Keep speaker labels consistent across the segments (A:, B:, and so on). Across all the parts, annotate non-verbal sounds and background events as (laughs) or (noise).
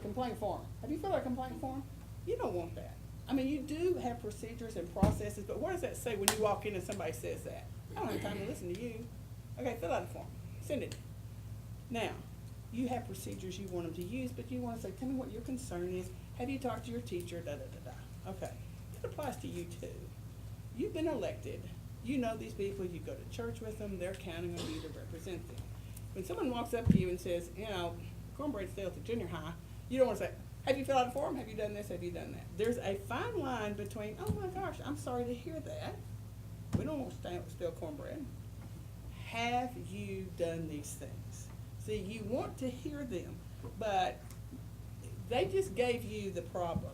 A: complaint form. Have you filled out a complaint form? You don't want that. I mean, you do have procedures and processes, but what does that say when you walk in and somebody says that? I don't have time to listen to you. Okay, fill out a form, send it. Now, you have procedures you want them to use, but you wanna say, tell me what your concern is, have you talked to your teacher, da, da, da, da. Okay, that applies to you too. You've been elected, you know these people, you go to church with them, they're counting on you to represent them. When someone walks up to you and says, you know, cornbread's stale at the junior high, you don't wanna say, have you filled out a form, have you done this, have you done that? There's a fine line between, oh my gosh, I'm sorry to hear that, we don't want stale, stale cornbread, have you done these things? See, you want to hear them, but they just gave you the problem.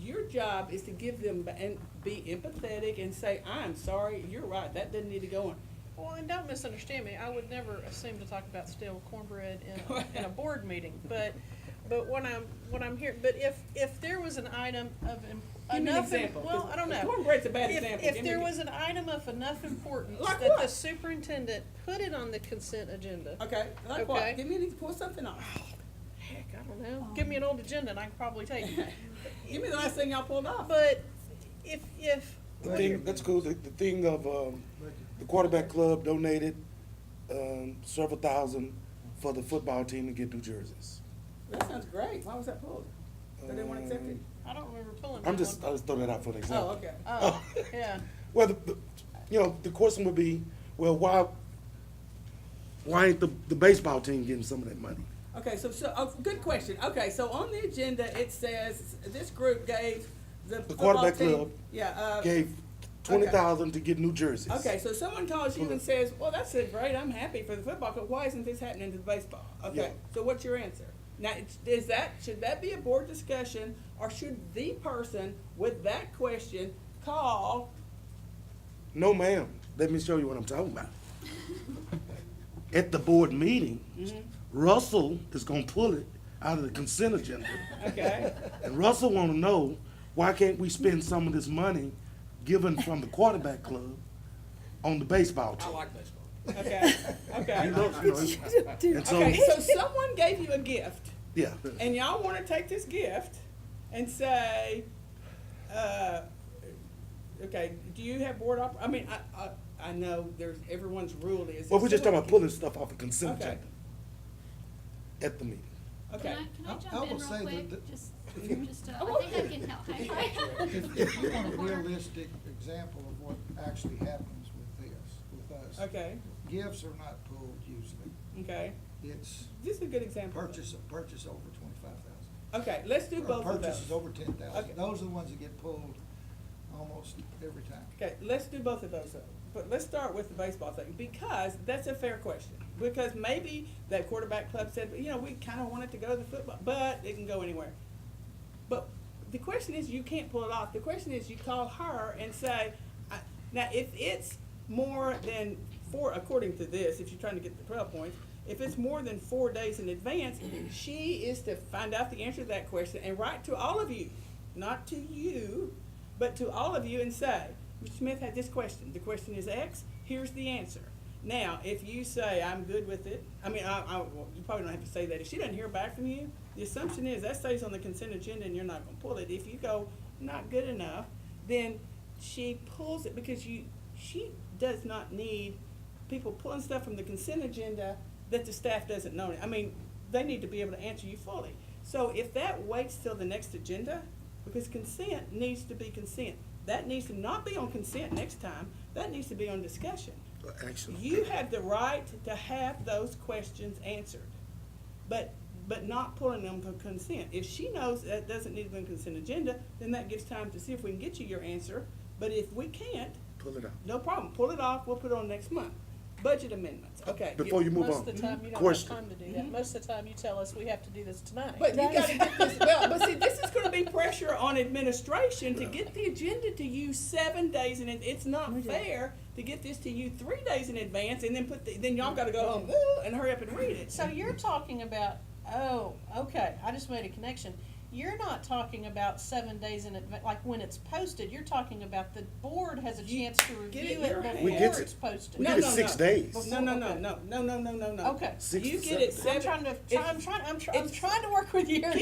A: Your job is to give them, ba- and be empathetic and say, I'm sorry, you're right, that doesn't need to go on.
B: Well, and don't misunderstand me, I would never assume to talk about stale cornbread in, a- in a board meeting, but, but when I'm, when I'm here, but if, if there was an item of im-
A: Give me an
B: enough, im-
A: example, 'cause
B: well, I don't know.
A: cornbread's a bad
B: If-
A: example. Give
B: If
A: me
B: there
A: an-
B: was an item of enough importance
A: Like
B: that the
A: what? Uh,
B: superintendent put it on the consent agenda.
A: Okay, like what?
B: Okay.
A: Give me, the- pull something off.
B: Heck, I don't know, give me an old agenda and I can probably take it,
A: Give me the last thing y'all pulled off.
B: but if, if,
C: The thing, that's cool, the, the thing of, um, the quarterback club donated, um, several thousand for the football team to get new jerseys.
A: That sounds great, why was that pulled? They didn't want to accept it?
B: I don't remember pulling that
C: I'm just, uh, I
B: one.
C: just throw that out for an example.
A: Oh, okay.
C: (laughs)
B: Oh, yeah,
C: Well, the, the, you know, the question would be, well, why, why ain't the, the baseball team getting some of that money?
A: Okay, so, so, oh, good question. Okay, so on the agenda, it says, this group gave the
C: The
A: football
C: quarterback
A: team.
C: club
A: Yeah, uh.
C: Gave twenty thousand to get new jerseys.
A: Okay, so someone calls you and says, well, that's it, great, I'm happy for the football, but why isn't this happening to the baseball? Okay,
C: Yeah.
A: so what's your answer? Now, it's- is that, should that be a board discussion, or should the person with that question call?
C: No, ma'am. Let me show you what I'm talking about. At the board meeting,
A: Mm-hmm.
C: Russell is gonna pull it out of the consent agenda.
A: Okay,
C: And Russell wanna know, why can't we spend some of this money given from the quarterback club on the baseball team?
A: okay, okay.
C: You (laughs) know, you know, And so,
A: Okay, so someone gave you a gift,
C: yeah,
A: and y'all wanna take this gift and say, uh, okay, do you have board op, I mean, I, I, I know there's, everyone's rule is.
C: well, we're just talking about
A: someone-
C: pulling stuff off the consent
A: Okay.
C: agenda at the meeting.
A: Okay.
D: Can I, can I
E: I-
D: jump in
E: I will
D: real
E: say that
D: quick?
E: the-
D: Just,
E: (laughs)
D: just, uh,
A: Oh,
D: I think I can help. Hi.
E: If you want a
D: Corner.
E: realistic example of what actually happens with this, with us.
A: Okay,
E: Gifts are not pooled usually.
A: okay.
E: It's
A: This is a good example. of it.
E: purchase, purchase over twenty-five thousand.
A: Okay, let's do both of
E: Purchases
A: those.
E: over ten
A: Okay.
E: thousand. Those are the ones that get pulled almost every time.
A: Okay, let's do both of those, though. but let's start with the baseball thing, because that's a fair question. Because maybe that quarterback club said, you know, we kinda want it to go to the football, but it can go anywhere. But the question is, you can't pull it off. The question is, you call her and say, I, now, if it's more than four, according to this, if you're trying to get the twelve points, if it's more than four days in advance, she is to find out the answer to that question and write to all of you, not to you, but to all of you and say, Mr. Smith had this question. The question is X. Here's the answer. Now, if you say I'm good with it, I mean, I, I, well, you probably don't have to say that. If she doesn't hear back from you, the assumption is that stays on the consent agenda and you're not going to pull it. If you go not good enough, then she pulls it because you she does not need people pulling stuff from the consent agenda that the staff doesn't know. I mean, they need to be able to answer you fully. So if that waits till the next agenda, because consent needs to be consent. That needs to not be on consent next time, that needs to be on discussion.
C: Actually.
A: You have the right to have those questions answered, but, but not pulling them for consent. If she knows that doesn't need to be on consent agenda, then that gives time to see if we can get you your answer. But if we can't,
C: Pull it out.
A: no problem, pull it off, we'll put it on next month. Budget amendments, okay.
C: Before you move
B: most of the time
C: on,
B: you don't have
C: question.
B: time to do that, most of the time you tell us we have to do this tonight.
A: But you gotta get this, well, but see, this is gonna be pressure on administration to get the agenda to you seven days, and it's not fair to get this to you three days in advance, and then put, the- then y'all gotta go home, "Ooh," and hurry up and read it.
B: So you're talking about, oh, okay, I just made a connection. You're not talking about seven days in advance, like when it's posted, you're talking about the board has a
A: You
B: chance to
A: get it
B: review
A: in
B: it
A: your hand.
B: before
C: We gets it.
B: it's posted.
C: We
A: No,
C: get it
A: no,
C: six
A: no.
C: days.
A: No, no, no, no, no, no, no, no, no.
B: Okay.
C: Six
A: You
C: to
A: get it
C: seven.
A: seven.
B: I'm trying to, I'm trying, I'm, tr- I'm
A: it's-
B: trying to work with you.